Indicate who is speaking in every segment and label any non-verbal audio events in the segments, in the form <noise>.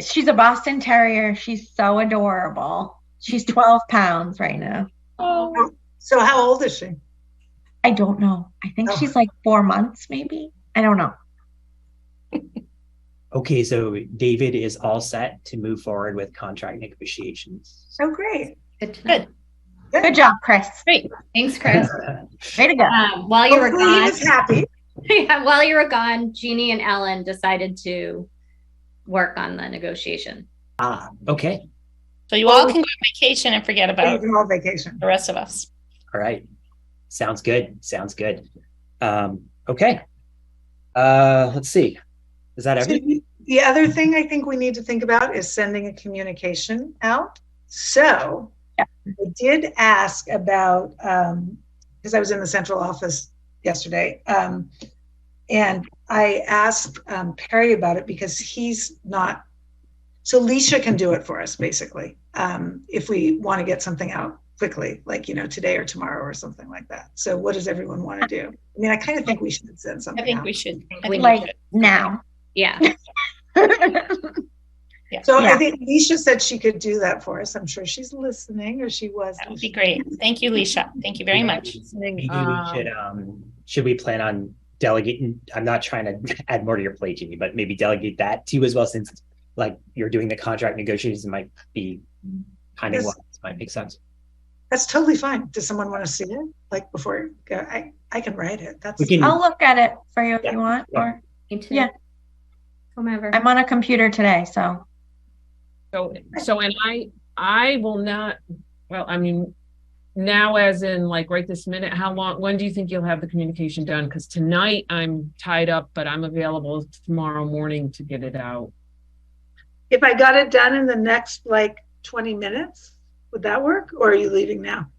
Speaker 1: she's a Boston Terrier. She's so adorable. She's
Speaker 2: Mm-hmm.
Speaker 1: 12 pounds right now.
Speaker 3: Oh,
Speaker 4: So how old is she?
Speaker 1: I don't know. I think
Speaker 4: Oh.
Speaker 1: she's like four months, maybe. I don't know.
Speaker 2: Okay, so David is all set to move forward with contract negotiations.
Speaker 4: Oh, great.
Speaker 3: good. to know.
Speaker 1: Good job, Chris.
Speaker 3: Thanks,
Speaker 2: <laughs>
Speaker 3: Chris.
Speaker 1: Way to go.
Speaker 3: Um, while you were
Speaker 4: Hopefully he
Speaker 3: gone,
Speaker 4: was happy.
Speaker 3: <laughs> yeah, while you were gone, Jeannie and Ellen decided to work on the negotiation.
Speaker 2: Ah, okay.
Speaker 5: So you all can go on vacation and forget
Speaker 4: You
Speaker 5: about
Speaker 4: can all vacation.
Speaker 5: the rest of us.
Speaker 2: All right. Sounds good. Sounds good. Um, okay. Uh, let's see. Is that everything?
Speaker 4: The other thing I think we need to think about is sending a communication out. So I did ask about, um, because I was in the central office yesterday, um, and I asked um, Perry about it because he's not, so Leisha can do it for us basically, um, if we want to get something out quickly, like, you know, today or tomorrow or something like that. So what does everyone want to do? I mean, I kind of think we should send
Speaker 5: I
Speaker 4: something
Speaker 5: think
Speaker 4: out.
Speaker 5: we should. I
Speaker 3: We
Speaker 5: think
Speaker 1: like-
Speaker 5: we should.
Speaker 1: Now. <laughs>
Speaker 3: Yeah.
Speaker 4: So I
Speaker 1: Yeah.
Speaker 4: think Leisha said she could do that for us. I'm sure she's listening or she was.
Speaker 5: That would be great. Thank you, Leisha. Thank you very much.
Speaker 2: Maybe we should, um, should we plan on delegating? I'm not trying to <laughs> add more to your plate, Jimmy, but maybe delegate that to you as well, since like you're doing the contract negotiations, it might be kind of
Speaker 4: Yes.
Speaker 2: what might make sense.
Speaker 4: That's totally fine. Does someone want to see it? Like before, I, I can write it. That's.
Speaker 2: We can-
Speaker 1: I'll look at it for you if
Speaker 2: Yeah.
Speaker 1: you want. Or
Speaker 3: Me too.
Speaker 1: Yeah.
Speaker 3: Whomever.
Speaker 1: I'm on a computer today, so
Speaker 6: So, so, and I, I will not, well, I mean, now as in like right this minute, how long, when do you think you'll have the communication done? Cause tonight I'm tied up, but I'm available tomorrow morning to get it out.
Speaker 4: If I got it done in the next like 20 minutes, would that work? Or are you leaving now?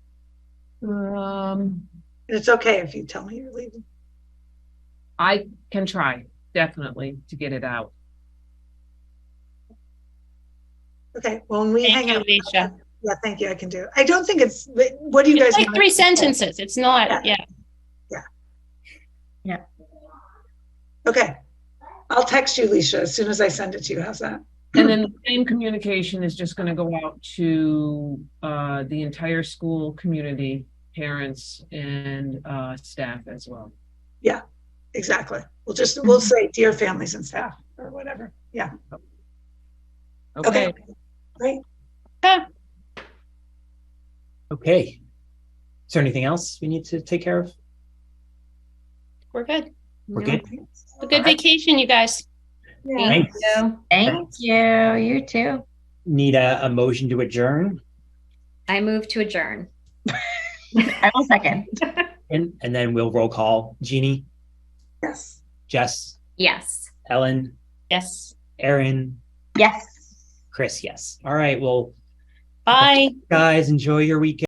Speaker 6: Um,
Speaker 4: And it's okay if you tell me you're leaving.
Speaker 6: I can try definitely to get it out.
Speaker 4: Okay, well, when we hang
Speaker 5: Thank you,
Speaker 4: out.
Speaker 5: Leisha.
Speaker 4: Yeah, thank you. I can do. it. I don't think it's, what do you guys?
Speaker 5: It's like
Speaker 4: want?
Speaker 5: three sentences. It's not, yeah.
Speaker 4: Okay. I'll text you, Leisha, as soon as I send it to you. How's that?
Speaker 6: And then the same communication is just gonna go out to, uh, the entire school community, parents and, uh, staff as well.
Speaker 4: Exactly. We'll just, we'll
Speaker 5: Mm-hmm.
Speaker 4: say dear families and staff or whatever. Yeah.
Speaker 6: Okay,
Speaker 4: Great.
Speaker 2: Okay. Is there anything else we need to take care of?
Speaker 5: We're good.
Speaker 2: We're good.
Speaker 5: A good vacation, you guys.
Speaker 4: Yeah.
Speaker 3: Thank
Speaker 2: Thanks.
Speaker 3: you.
Speaker 1: thank you. You too.
Speaker 2: Need a, a motion to adjourn
Speaker 3: I move to adjourn.
Speaker 1: I will second.
Speaker 2: and, and then we'll roll call Jeannie,
Speaker 4: Yes.
Speaker 2: Jess,
Speaker 3: Yes.
Speaker 2: Ellen,
Speaker 5: Yes.
Speaker 2: Erin,
Speaker 1: Yes.
Speaker 2: Chris. Yes. All right. Well,
Speaker 5: Bye.
Speaker 2: guys, enjoy your weekend.